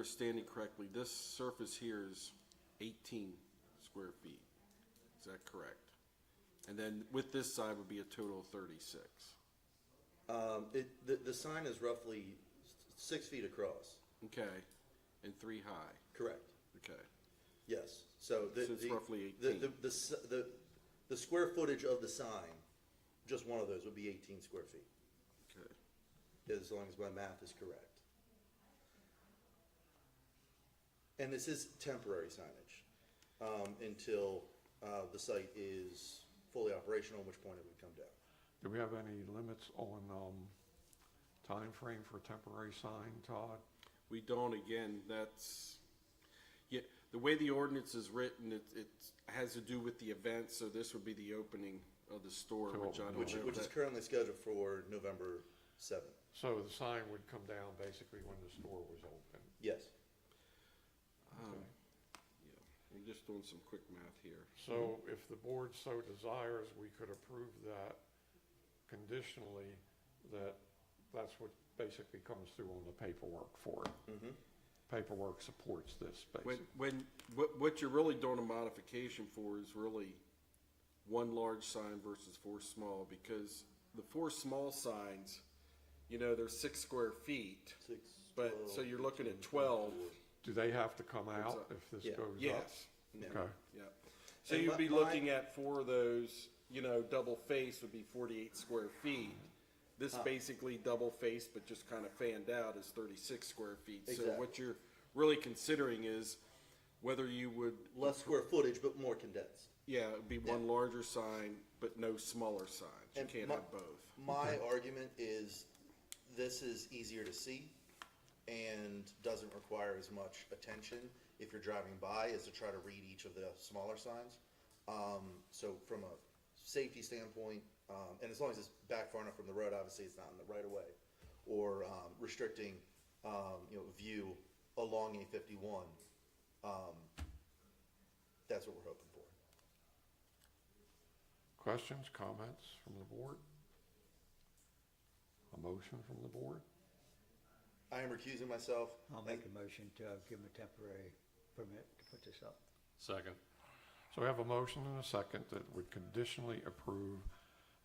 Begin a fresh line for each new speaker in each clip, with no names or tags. understanding correctly, this surface here is 18 square feet. Is that correct? And then with this side would be a total of 36.
Um, it, the, the sign is roughly s- six feet across,
Okay, and three high,
correct?
okay.
Yes, so the.
So it's
the-
roughly
the-
18.
The, the, s- the, the square footage of the sign, just one of those would be eighteen square feet,
Okay.
as long as my math is correct. And this is temporary signage, um, until, uh, the site is fully operational, at which point it would come down.
Do we have any limits on, um, timeframe for temporary sign, Todd?
We don't, again, that's, yeah, the way the ordinance is written, it, it has to do with the event, so this would be the opening of the store,
To
which I
open.
don't know.
Which, which
if
is
Oh, that-
currently scheduled for November seventh,
So the sign would come down basically when the store was open.
yes.
um, yeah. I'm just doing some quick math here.
So if the board so desires, we could approve that conditionally, that that's what basically comes through on the paperwork for it.
Mm-hmm.
Paperwork supports this,
When,
basically.
when, what, what you're really doing a modification for is really one large sign versus four small, because the four small signs, you know, they're six square feet,
Six,
but, so you're looking at twelve,
Do they have to come out
up.
if this
Yeah.
goes up?
yes,
Okay,
yeah. So
And
you'd
my-
be
my-
looking at four of those, you know, double face would be forty-eight square feet. This basically double face, but just kind of fanned out is thirty-six square feet, so what
Exactly.
you're really considering is whether you would
less square footage, but more condensed.
Yeah, it'd be one larger sign, but no smaller signs. You
And
can't
my-
have both.
My argument is this is easier to see and doesn't require as much attention if you're driving by as to try to read each of the smaller signs. Um, so from a safety standpoint, um, and as long as it's back far enough from the road, obviously it's not in the right of way or um, restricting, um, you know, view along A fifty-one. Um, that's what we're hoping for.
questions, comments from the board? A motion from the board?
I am recusing myself.
I'll
Thank-
make a motion to uh, give them a temporary permit to put this up.
Second.
So we have a motion and a second that would conditionally approve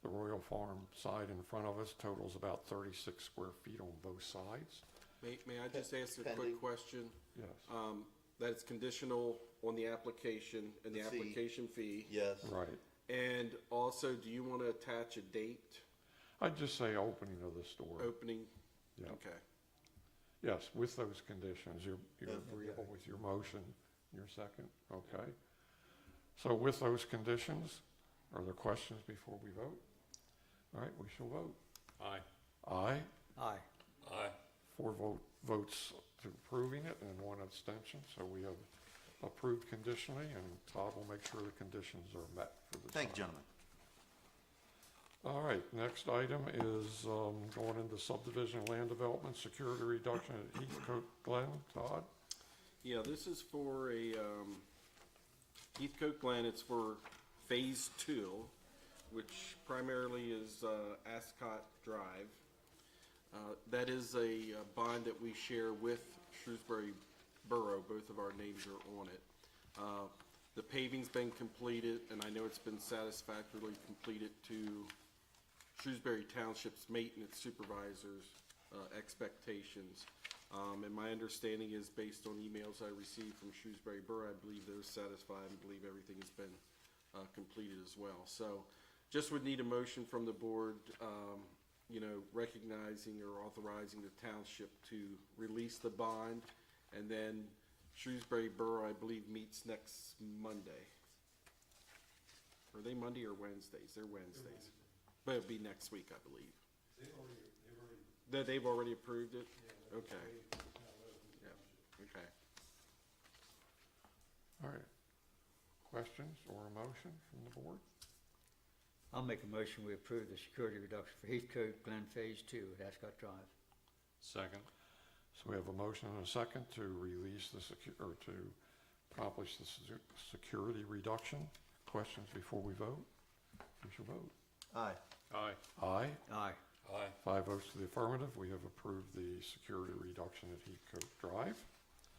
the Royal Farm side in front of us totals about thirty-six square feet on both sides.
May, may I just ask a
Pending.
quick question?
Yes,
Um, that it's conditional on the application and the
The fee.
application fee.
Yes.
right.
And also, do you want to attach a date,
I'd just say opening of the store.
opening?
Yeah.
Okay.
Yes, with those conditions, you're, you're
Yeah.
agreeable with your motion, your second, okay? So with those conditions, are there questions before we vote? All right, we shall vote.
Aye.
Aye,
Aye.
Aye.
four vote, votes to approving it and one abstention, so we have approved conditionally, and Todd will make sure the conditions are met for the
Thank you,
sign.
gentlemen.
All right, next item is, um, going into subdivision land development, security reduction at Heathcote Glen, Todd?
Yeah, this is for a, um, Heathcote Glen, it's for Phase Two, which primarily is, uh, Ascot Drive. Uh, that is a uh, bond that we share with Shrewsbury Borough, both of our names are on it. Uh, the paving's been completed, and I know it's been satisfactorily completed to Shrewsbury Township's maintenance supervisor's uh, expectations. Um, And my understanding is, based on emails I received from Shrewsbury Borough, I believe they're satisfied and believe everything has been uh, completed as well. So just would need a motion from the board, um, you know, recognizing or authorizing the township to release the bond. And then Shrewsbury Borough, I believe, meets next Monday. Are they Monday or Wednesdays? They're Wednesdays. But it'll be next week, I believe. They've already, they've already. approved it? Okay. Yeah, okay.
All right. Questions or a motion from the board?
I'll make a motion, we approve the security reduction for Heathcote Glen Phase Two at Ascot Drive.
Second.
So we have a motion and a second to release the secu- or to accomplish the secu- security reduction. Questions before we vote? We shall vote.
Aye.
Aye.
Aye.
Aye.
Aye.
Five votes to the affirmative. We have approved the security reduction at Heathcote Drive.